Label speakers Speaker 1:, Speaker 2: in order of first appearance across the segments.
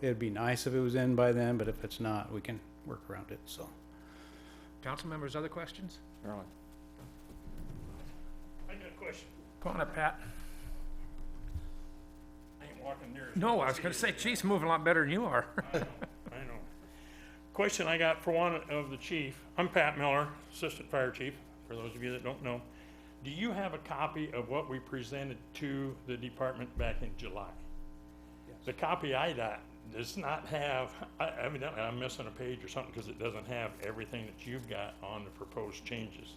Speaker 1: It'd be nice if it was in by then, but if it's not, we can work around it, so.
Speaker 2: Council members, other questions?
Speaker 3: Carolyn?
Speaker 4: I got a question.
Speaker 2: Come on up, Pat.
Speaker 4: I ain't walking near. it.
Speaker 2: No, I was gonna say, chief's moving a lot better than you are.
Speaker 4: I know. Question I got for one of the chief. I'm Pat Miller, Assistant Fire Chief, for those of you that don't know. Do you have a copy of what we presented to the department back in July? The copy I got does not have, I, evidently I'm missing a page or something because it doesn't have everything that you've got on the proposed changes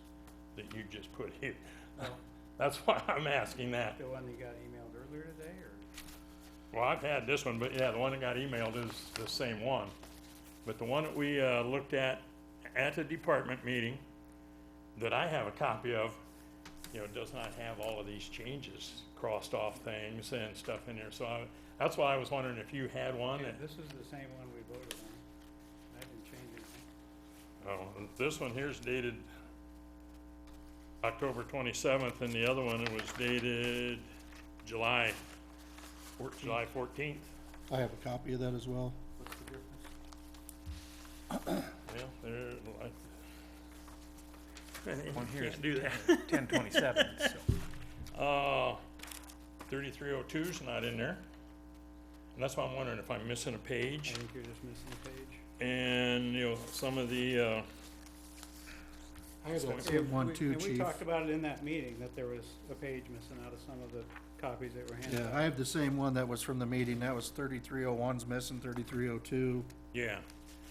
Speaker 4: that you just put here. That's why I'm asking that.
Speaker 1: The one you got emailed earlier today, or?
Speaker 4: Well, I've had this one, but yeah, the one that got emailed is the same one. But the one that we, uh, looked at, at the department meeting, that I have a copy of, you know, does not have all of these changes, crossed off things and stuff in there, so I, that's why I was wondering if you had one that,
Speaker 1: This is the same one we voted on. I didn't change anything.
Speaker 4: oh, this one here's dated October twenty-seventh, and the other one it was dated July, four- July fourteenth,
Speaker 5: I have a copy of that as well.
Speaker 4: yeah, there, like.
Speaker 2: One here is
Speaker 4: Can't do that.
Speaker 2: ten twenty-seven, so.
Speaker 4: Uh, 3302's not in there. And that's why I'm wondering if I'm missing a
Speaker 1: I
Speaker 4: page.
Speaker 1: think you're just missing a page.
Speaker 4: And, you know, some of the, uh,
Speaker 5: I have
Speaker 4: that
Speaker 5: same one
Speaker 1: We-
Speaker 5: too,
Speaker 1: And we
Speaker 5: chief.
Speaker 1: talked about it in that meeting, that there was a page missing out of some of the copies that were handed
Speaker 5: Yeah,
Speaker 1: out.
Speaker 5: I have the same one that was from the meeting. That was thirty-three oh one's missing, thirty-three oh two.
Speaker 4: yeah.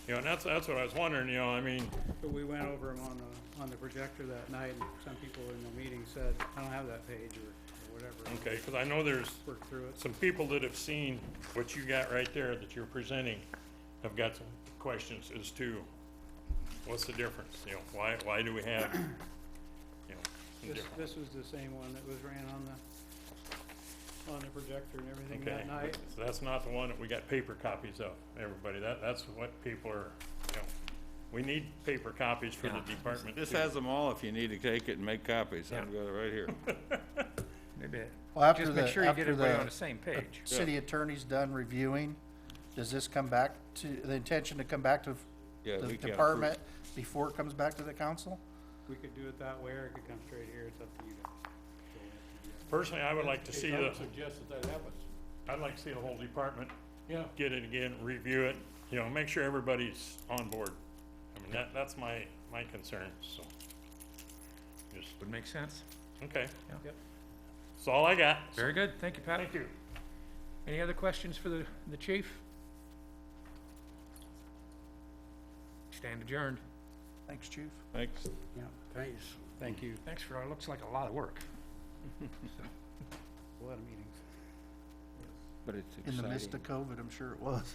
Speaker 4: You know, and that's, that's what I was wondering, you know, I mean,
Speaker 1: But we went over them on the, on the projector that night, and some people in the meeting said, I don't have that page, or or whatever. and
Speaker 4: okay, because I know there's
Speaker 1: Worked through it.
Speaker 4: some people that have seen what you got right there that you're presenting have got some questions as to what's the difference, you know, why, why do we have, you know, some
Speaker 1: This,
Speaker 4: different-
Speaker 1: this was the same one that was ran on the, on the projector and everything
Speaker 4: Okay,
Speaker 1: that night.
Speaker 4: so that's not the one that we got paper copies of, everybody, that, that's what people are, you know, we need paper copies for the department.
Speaker 3: This
Speaker 4: too.
Speaker 3: has them all if you need to take it and make copies. I've
Speaker 2: Yeah.
Speaker 3: got it right here.
Speaker 2: Maybe, it-
Speaker 5: Well, after
Speaker 2: just
Speaker 5: the,
Speaker 2: make sure you get
Speaker 5: after
Speaker 2: everybody on
Speaker 5: the
Speaker 2: the same page.
Speaker 5: city attorney's done reviewing, does this come back to, the intention to come back to
Speaker 3: Yeah,
Speaker 5: the
Speaker 3: we can't
Speaker 5: department before it comes back to the council?
Speaker 1: We could do it that way, or it could come straight here, it's up to you guys.
Speaker 4: Personally, I would like to see
Speaker 6: I
Speaker 4: the,
Speaker 6: would suggest that that happens.
Speaker 4: I'd like to see the whole department
Speaker 6: Yeah.
Speaker 4: get it again, review it, you know, make sure everybody's on board. I mean, that, that's my, my concern, so. Just,
Speaker 2: Would make sense.
Speaker 4: okay.
Speaker 2: Yeah.
Speaker 1: Yep.
Speaker 4: That's all I got,
Speaker 2: Very good, thank you, Pat.
Speaker 4: thank you.
Speaker 2: Any other questions for the, the chief? Stand adjourned.
Speaker 5: Thanks, chief.
Speaker 3: Thanks.
Speaker 1: Yeah, thanks. Thank you,
Speaker 2: Thanks for, it looks like a lot of work.
Speaker 1: a lot of meetings.
Speaker 3: But it's
Speaker 5: In the midst of COVID, I'm sure it was.